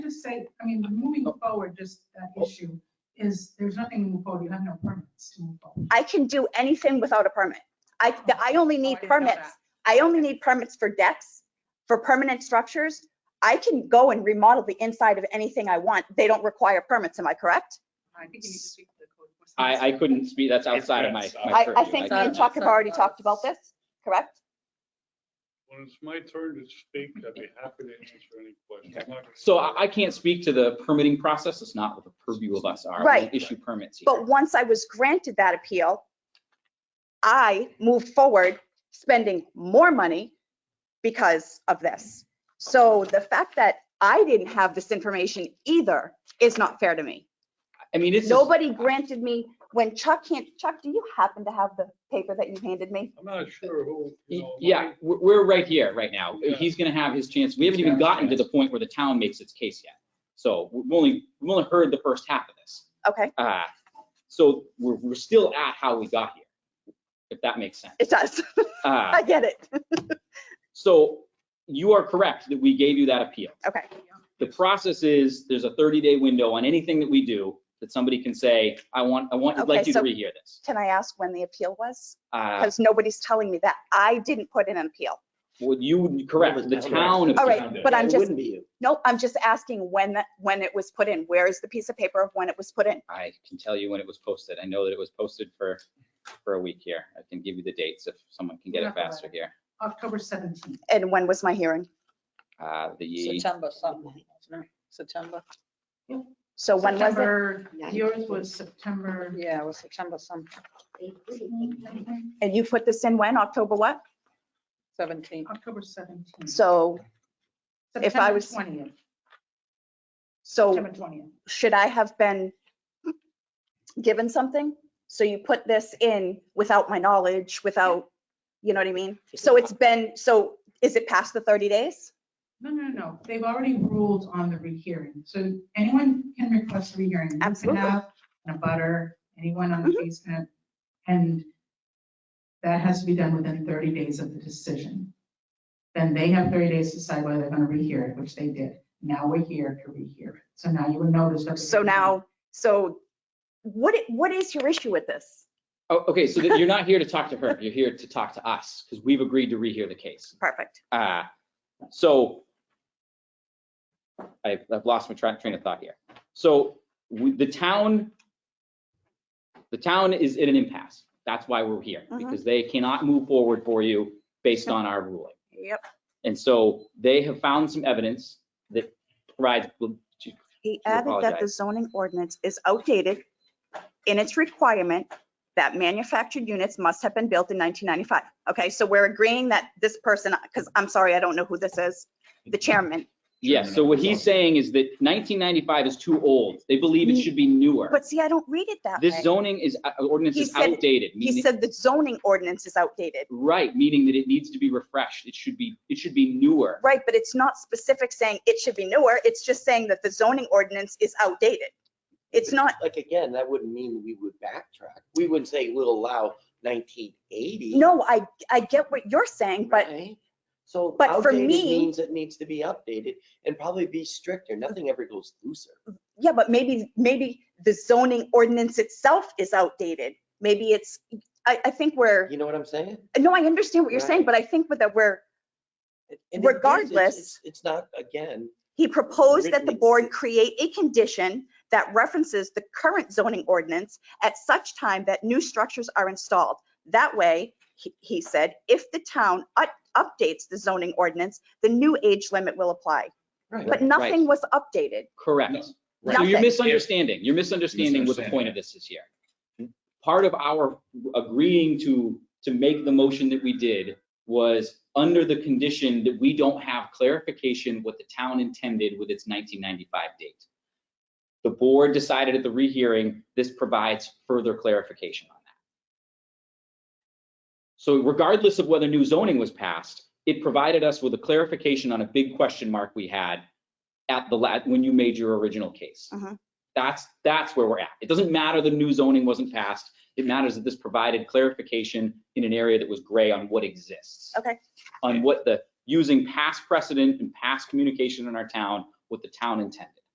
say, I mean, moving forward, just that issue is, there's nothing to move forward. You have no permits to move forward. I can do anything without a permit. I, the- I only Oh, need I didn't know permits. that. I only need permits for decks, for permanent structures. I can go and remodel the inside of anything I want. They don't require permits, am I correct? I think you need to speak to the code. enforcement I, I couldn't speak, that's outside of my. It's- my I, I purview. think me I- and Chuck have already talked about this, correct? When it's my turn to speak, I'd be happy to answer any questions. I'm not gonna- So I, I can't speak to the permitting process, it's not what the purview of us are. We Right. don't issue permits here. But once I was granted that appeal, I moved forward spending more money because of this. So the fact that I didn't have this information either is not fair to me. I mean, it's. Nobody granted me, when Chuck can't, Chuck, do you happen to have the paper that you handed me? I'm not sure who, you know. Yeah, we're, we're right here, right now. Yeah. He's gonna have his chance. We haven't even gotten to the point where the town makes its case yet. So we've only, we've only heard the first half of this. Okay, Uh, So we're, we're still at how we got here, if that makes sense. it does. Uh, I get it. So you are correct that we gave you that appeal. Okay. The process is, there's a 30-day window on anything that we do that somebody can say, I want, I want, I'd like Okay, you to so- rehear this. Can I ask when the appeal was? Uh, Because nobody's telling me that. I didn't put in an appeal. Well, you, would- correct, the town. All appealed right, it. but I'm It just, wouldn't be you. nope, I'm just asking when, that when it was put in. Where is the piece of paper of when it was put in? I can tell you when it was posted. I know that it was posted for, for a week here. I can give you the dates if someone can get it faster here. October 17th. And when was my hearing? Uh, The, September something, wasn't it? September, So when was it? September- Yours was September. yeah, it was September something, And you put this in when? October what? 17. October 17th. So, if I September was- Oh. 20th, so September 20th. should I have been given something? So you put this in without my knowledge, without, you know what I mean? So it's been, so is it past the 30 days? No, no, no, they've already ruled on the rehearing, so anyone can request a rehearing. You can Absolutely. Mm-hmm. have An abutter, anyone on the basement, and that has to be done within 30 days of the decision. Then they have 30 days to decide whether they're going to rehear it, which they did. Now we're here to rehear it, so now you would notice that. So now, so what, i- what is your issue with this? oh, okay, so that you're not here to talk to her. You're here to talk to us because we've agreed to rehear the case. Perfect. Uh, So I- I've lost my tra- train of thought here. So we- the town, the town is in an impasse. That's why we're here, Mhm. because they cannot move forward for you based on our ruling. Yep. And so they have found some evidence that provides, He I added that the zoning ordinance is outdated in its requirement that manufactured units must have been built in 1995. Okay, so we're agreeing that this person, because I'm sorry, I don't know who this is, the chairman. yes, so what he's saying is that 1995 is too old. They believe it should be newer. But see, I don't read it that This way. zoning is, uh, ordinance He is said- outdated, He meaning, said the zoning ordinance is outdated. right, meaning that it needs to be refreshed. It should be, it should be newer. Right, but it's not specific saying it should be newer. It's just saying that the zoning ordinance is outdated. It's not, Like, again, that wouldn't mean we would backtrack. We wouldn't say we'll allow 1980. no, I, I get what you're saying, but right? So but for outdated me- means it needs to be updated and probably be stricter. Nothing ever goes looser. Yeah, but maybe, maybe the zoning ordinance itself is outdated. Maybe it's, I, I think we're, You know what I'm saying? no, I understand what you're saying, Right. but I think that we're, And it is, it's- Regardless- it's- It's not, again, he proposed that the Originally- board create a condition that references the current zoning ordinance at such time that new structures are installed. That way, he, he said, if the town u- updates the zoning ordinance, the new age limit will apply. right. But nothing was updated. Correct. No. So you're Nothing. misunderstanding. You're misunderstanding what the point of this is here. Part of our agreeing to, to make the motion that we did was under the condition that we don't have clarification what the town intended with its 1995 date. The board decided at the rehearing, this provides further clarification on that. So regardless of whether new zoning was passed, it provided us with a clarification on a big question mark we had at the, la- when you made your original case. Mhm. That's, that's where we're at. It doesn't matter the new zoning wasn't passed. It matters that this provided clarification in an area that was gray on what exists. Okay. On what the, using past precedent and past communication in our town, what the town intended.